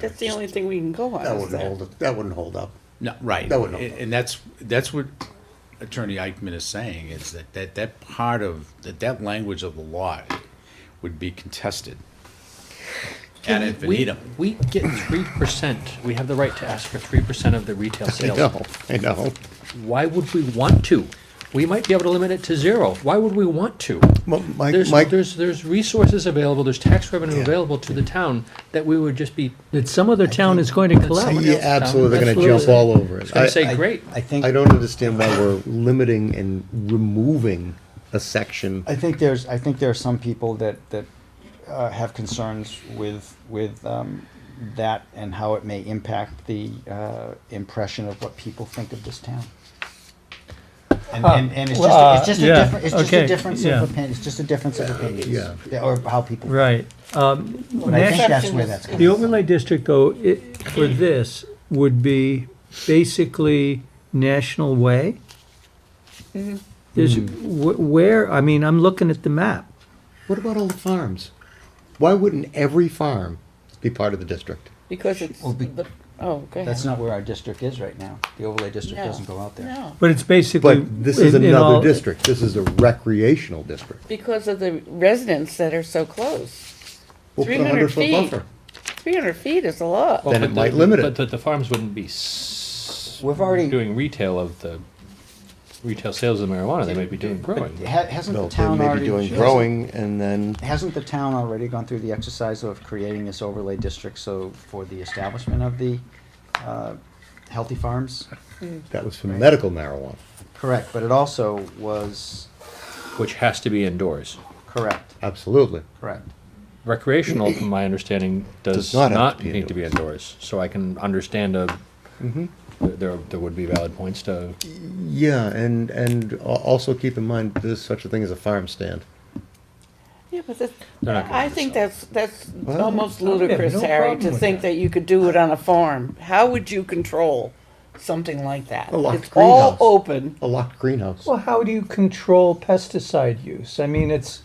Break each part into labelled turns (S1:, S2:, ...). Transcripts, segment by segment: S1: That's the only thing we can go on.
S2: That
S1: is
S2: wouldn't
S1: that.
S2: hold, it- that wouldn't hold up.
S3: No, right.
S2: That would help.
S3: And and that's, that's what Attorney Eichman is saying, is that, that, that part of, that, that language of the law would be contested. Ad infinitum.
S4: We get three percent. We have the right to ask for three percent of the retail
S2: I
S4: sales.
S2: know, I know.
S4: Why would we want to? We might be able to limit it to zero. Why would we want to?
S2: Well, Mike,
S4: There's,
S2: Mike,
S4: there's, there's resources available, there's tax revenue
S2: Yeah.
S4: available to the town that we would just be,
S5: that some other town is going to collapse.
S2: yeah, absolutely, they're gonna jump
S4: Absolutely.
S2: all over it.
S4: gonna
S2: I-
S4: say,
S2: I-
S4: great.
S6: I think,
S2: I don't understand why we're limiting and removing a section.
S6: I think there's, I think there are some people that, that uh, have concerns with, with um, that and how it may impact the uh, impression of what people think of this town. And, and, and it's
S5: Huh.
S6: just, it's just a
S5: Uh, yeah,
S6: different, it's just a
S5: okay,
S6: difference
S5: yeah.
S6: of opinion, it's just a difference of opinion.
S2: yeah.
S6: Or how people, but
S5: Right. Um,
S6: I think
S5: next-
S6: that's where that's coming
S5: The
S6: from.
S5: overlay district, though, i for this would be basically National Way. Mm-hmm. There's, wh- where, I mean, I'm looking at the map.
S2: What about all the farms? Why wouldn't every farm be part of the district?
S1: Because it's,
S6: Well, be-
S1: the- oh, go ahead.
S6: That's not where our district is right now. The overlay district
S1: No,
S6: doesn't go out there.
S1: No,
S5: But it's basically.
S2: But this is
S5: in- in all-
S2: another district, this is a recreational district.
S1: because of the residents that are so close.
S2: We'll put a
S1: 300
S2: 100-foot
S1: feet.
S2: buffer.
S1: Three hundred feet is a lot.
S2: Then
S7: but
S2: it
S7: the-
S2: might limit
S7: But
S2: it.
S7: the, the farms wouldn't be s-
S6: We've already-
S7: doing retail of the retail sales of marijuana. They might be doing growing.
S6: Ha- Hasn't
S2: No,
S6: the
S2: they
S6: town
S2: may
S6: already?
S2: be doing
S6: hasn't-
S2: growing and then,
S6: Hasn't the town already gone through the exercise of creating this overlay district so for the establishment of the uh, healthy farms?
S2: that was for medical marijuana.
S6: Correct, but it also was,
S7: which has to be indoors.
S6: correct,
S2: Absolutely.
S6: correct.
S7: Recreational, from my understanding, does,
S2: Does not
S7: not,
S2: have to be Mm-hmm.
S7: need to be indoors. So I can understand a. There, there would be valid points to.
S2: Yeah, and, and al- also keep in mind, there's such a thing as a farm stand.
S1: Yeah, but that's,
S7: They're not gonna
S1: I
S7: do
S1: think
S7: so.
S1: that's, that's
S2: Well,
S1: almost
S5: have
S1: ludicrous,
S5: no
S1: Harry,
S5: problem
S1: to
S5: with
S1: think
S5: that.
S1: that you could do it on a farm. How would you control something like that?
S2: A locked
S1: It's all
S2: greenhouse.
S1: open,
S2: A locked greenhouse.
S5: Well, how do you control pesticide use? I mean, it's.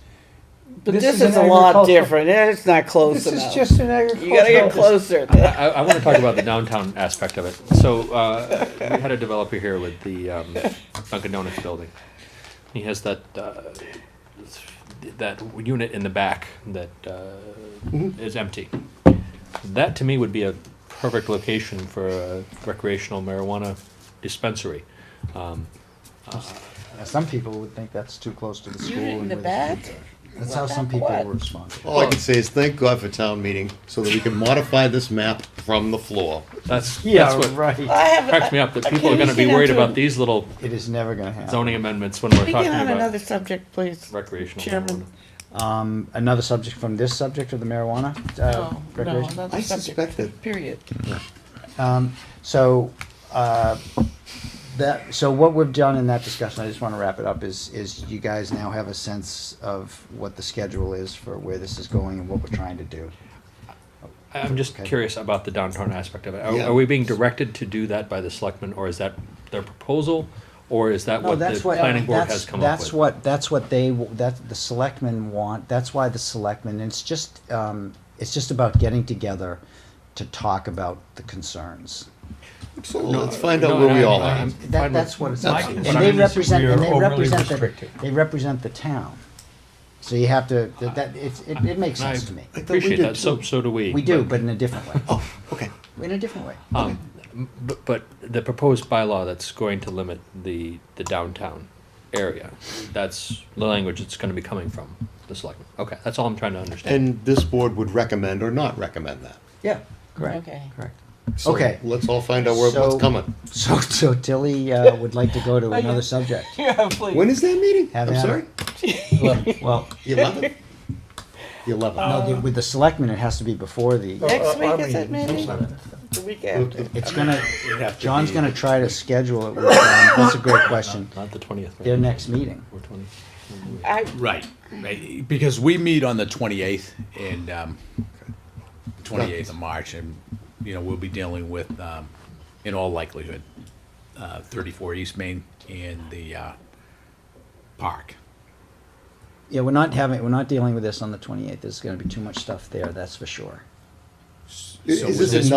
S1: but this is a lot
S5: agricultural-
S1: different, it's not close
S5: This
S1: enough.
S5: is just an
S1: You gotta get closer.
S5: agricultural.
S7: I, I, I want to talk about the downtown aspect of it. So uh, we had a developer here with the um, Dunkin' Donuts building. He has that uh, that unit in the back that uh,
S2: Mm-hmm.
S7: is empty. That to me would be a perfect location for a recreational marijuana dispensary. Um,
S6: Now, Some people would think that's too close to the school.
S1: Unit in
S6: and
S1: the
S6: with-
S1: back?
S6: That's how some
S1: Back
S6: people
S1: what?
S6: were responding.
S2: All I can say is thank God for town meeting, so that we can modify this map from the floor.
S7: that's
S6: Yeah,
S7: that's what
S6: right.
S1: I have,
S7: cracks me up that people are going to be
S1: Occasionally,
S7: worried
S1: too.
S7: about these little
S6: It is never gonna happen.
S7: zoning amendments when we're
S1: Speaking
S7: talking
S1: on another
S7: about
S1: subject, please.
S7: recreational marijuana.
S1: Chairman.
S6: Um, Another subject from this subject of the marijuana?
S1: Oh,
S6: uh,
S1: No, no,
S6: recreation?
S1: another
S2: I
S1: subject,
S2: suspect that-
S1: Period.
S6: Um, so, uh, that, so what we've done in that discussion, I just wanna wrap it up, is, is you guys now have a sense of what the schedule is for where this is going and what we're trying to do.
S7: I- I'm just
S6: Okay.
S7: curious about the downtown aspect of it. Are,
S2: Yeah.
S7: are we being directed to do that by the selectmen, or is that their proposal, or is that what the planning board
S6: that's-
S7: has come
S6: that's
S7: up with?
S6: what that's what they w- that the selectmen want. That's why the selectmen. It's just um, it's just about getting together to talk about the concerns.
S2: So
S6: uh,
S2: let's find out
S7: No,
S2: where
S7: no,
S2: we
S7: I'm-
S2: all are.
S7: I'm
S6: That,
S7: fine with-
S6: that's what it's
S7: my
S6: about.
S7: concern
S6: and they
S7: is we
S6: represent
S7: are
S6: and they
S7: overly
S6: represent the,
S7: restricted.
S6: they represent the town. So you have to that, that it's, it, it makes
S7: I-
S6: sense to me.
S7: I appreciate that. So, so do we.
S6: We do,
S7: but-
S6: but in a different way.
S2: Oh, okay.
S6: In a different way.
S7: Um, m- but, but the proposed bylaw that's going to limit the, the downtown area, that's the language it's gonna be coming from, the selectmen. Okay, that's all I'm trying to understand.
S2: And this board would recommend or not recommend that.
S6: Yeah. Correct.
S1: Okay.
S6: Correct.
S2: So
S6: Okay.
S2: Let's all find out where, what's
S6: So-
S2: coming.
S6: So so Tilly uh, would like to go to another subject.
S1: Yeah, please.
S2: When is that meeting?
S6: Have
S2: I'm
S6: at
S2: sorry?
S6: it. Well,
S2: The eleventh? The
S7: Uh,
S2: eleventh.
S6: no, the- with the selectmen, it has to be before the.
S1: Next week, is it maybe? The week after.
S6: It's gonna, John's gonna try to schedule it with, um, that's a great question,
S7: Not the twentieth.
S6: their next meeting.
S7: Or twenty.
S1: I,
S3: Right, right, because we meet on the twenty-eighth and, um, twenty-eighth of March, and, you know, we'll be dealing with, um, in all likelihood, uh, thirty-four East Main and the, uh, park.
S6: Yeah, we're not having, we're not dealing with this on the twenty-eighth, there's gonna be too much stuff there, that's for sure.
S2: So
S8: Is
S2: was
S8: this
S2: this